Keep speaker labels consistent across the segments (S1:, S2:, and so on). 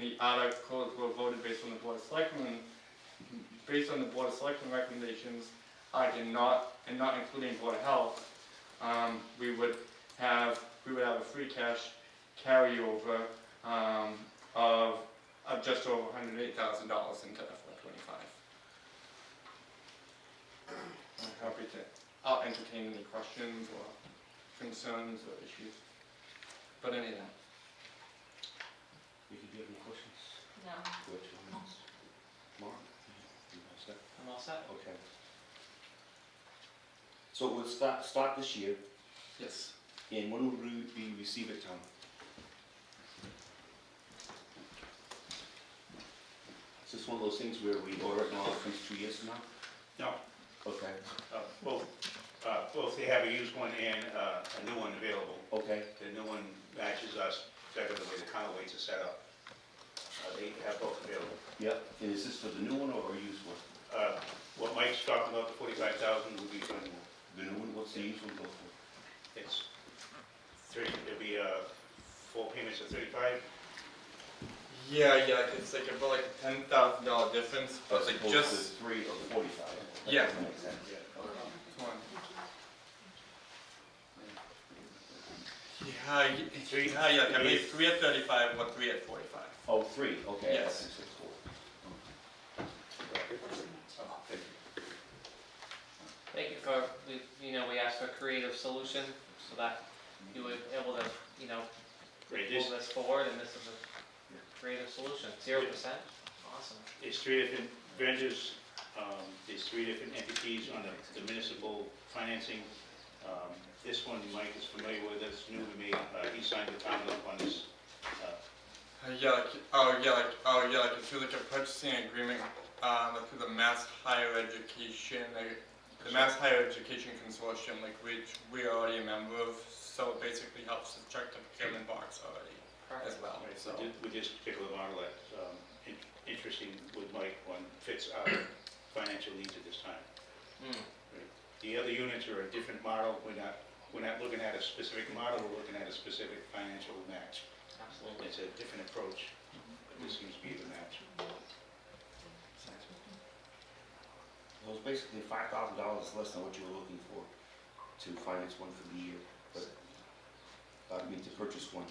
S1: the articles were voted based on the board of selectmen, based on the board of selectmen recommendations, I did not, and not including board of health, um, we would have, we would have a free cash carryover, um, of, of just over hundred eight thousand dollars into FY twenty-five. I'm happy to, I'll entertain any questions or concerns or issues, but any of that.
S2: You could give any questions?
S3: No.
S2: Go to comments. Mark? You guys set?
S4: I'm all set.
S2: Okay. So we'll start, start this year,
S1: Yes.
S2: and when will we we receive it, Tom? Is this one of those things where we order it and all it comes two years from now?
S5: No,
S2: Okay,
S5: uh, both, uh, both they have a used one and uh, a new one available.
S2: okay,
S5: The new one matches us better the way the counter weights are set up. Uh, They have both available.
S2: yep. And is this for the new one or a used one?
S5: Uh, What Mike's talking about, the forty-five thousand, would be for the new one.
S2: The new one, what's the used one go for?
S5: It's three, it'll be uh, four payments of thirty-five.
S1: Yeah, yeah, it's like about like a ten thousand dollar difference, but
S2: As
S1: like
S2: opposed to
S1: just
S2: Three or forty-five?
S1: Yeah.
S2: That makes sense.
S1: Yeah, y-
S5: Three-
S1: yeah, yeah, like at
S5: three-
S1: least three at thirty-five or three at forty-five.
S2: Oh, three, okay.
S1: Yes.
S2: Six, six, four.
S4: Thank you for, we, you know, we asked for a creative solution so that you were able to, you know,
S5: Great, this,
S4: move this forward and this is a creative solution. Zero percent? Awesome.
S5: There's three different vendors, um, there's three different entities on the- the municipal financing. Um, This one Mike is familiar with, it's new to me, Uh, he signed the town up on this. Uh,
S1: Uh, yeah, like, oh, yeah, like, oh, yeah, like, it's like a purchasing agreement, uh, like with the Mass Higher Education, like, the Mass Higher Education Consortium, like, which we are already a member of, so it basically helps to check the procurement box already as well, so.
S5: thi- With this particular model, that's um, in- interesting with Mike, one fits our financial needs at this time.
S4: Hmm.
S5: The other units are a different model, we're not, we're not looking at a specific model, we're looking at a specific financial match.
S4: Absolutely.
S5: It's a different approach, but this seems to be the match.
S2: Well, it's basically five thousand dollars less than what you were looking for to finance one for the year, but, uh, I mean, to purchase one,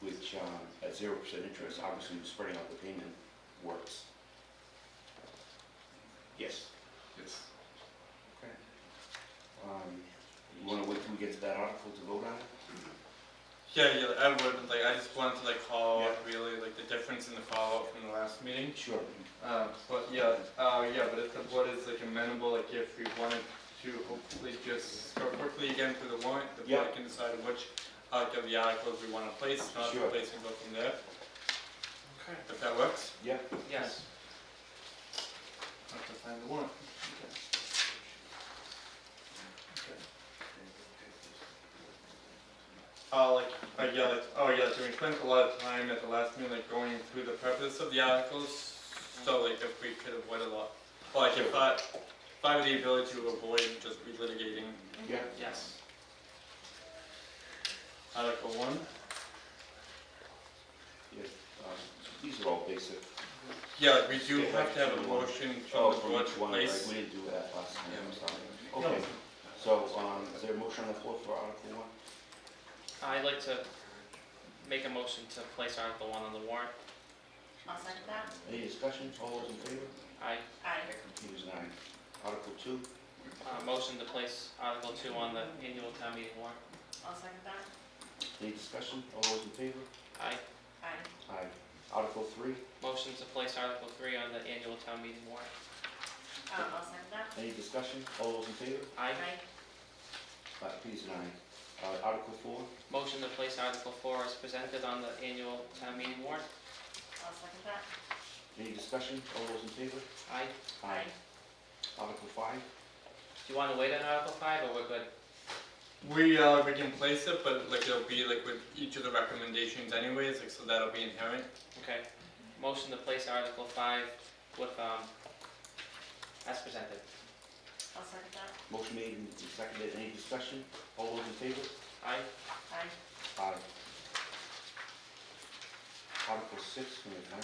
S2: which, um, at zero percent interest, obviously spreading out the payment works.
S5: Yes.
S1: Yes.
S2: Um, you wanna wait till we get to that article to vote on it?
S1: Yeah, yeah, I would, like, I just wanted to, like, call
S2: Yeah.
S1: out really, like, the difference in the follow-up from the last meeting.
S2: Sure.
S1: Um, but yeah, uh, yeah, but if the board is like amenable, like if we wanted to hopefully just go quickly again through the warrant, the
S2: Yeah.
S1: board can decide which, uh, of the articles we wanna place, not
S2: Sure.
S1: place and go from there. Okay. If that works,
S2: Yeah,
S4: Yes.
S1: I'll have to find the warrant.
S2: Um,
S1: Uh, like, uh, yeah, like, oh yeah, so we spent a lot of time at the last meeting, like going through the purpose of the articles, so like if we could avoid a lot, well, like if I, if I have the ability to avoid just relitigating
S2: yeah,
S4: Yes.
S1: Article one.
S2: yeah, um, these are all basic.
S1: Yeah, like we do
S2: Yeah,
S1: have to have a
S2: Article one.
S1: motion
S2: Oh,
S1: from the
S2: for
S1: board to
S2: each one, right,
S1: place.
S2: We didn't do that last time,
S1: Yeah.
S2: I'm sorry. Okay, so, um, is there a motion on the floor for article one?
S4: I'd like to make a motion to place Article One on the warrant.
S3: I'll second that.
S2: Any discussion, all those in favor?
S4: I,
S3: Aye.
S2: Peters and I. Article two,
S4: uh, motion to place Article Two on the annual town meeting warrant.
S3: I'll second that.
S2: any discussion, all those in favor?
S4: I,
S3: Aye.
S2: Aye. Article three,
S4: motion to place Article Three on the annual town meeting warrant.
S3: Um, I'll second that.
S2: any discussion, all those in favor?
S4: I,
S3: Aye.
S2: Aye, Peters and I. Uh, Article four,
S4: motion to place Article Four as presented on the annual town meeting warrant.
S3: I'll second that.
S2: any discussion, all those in favor?
S4: I,
S3: Aye.
S2: Article five,
S4: do you want to wait on Article Five, or we're good?
S1: We, uh, we can place it, but like it'll be like with each of the recommendations anyways, like so that'll be inherent.
S4: Okay, motion to place Article Five with, um, as presented.
S3: I'll second that.
S2: motion made and seconded, any discussion, all those in favor?
S4: Aye.
S3: Aye.
S2: Aye. Article six, we have time.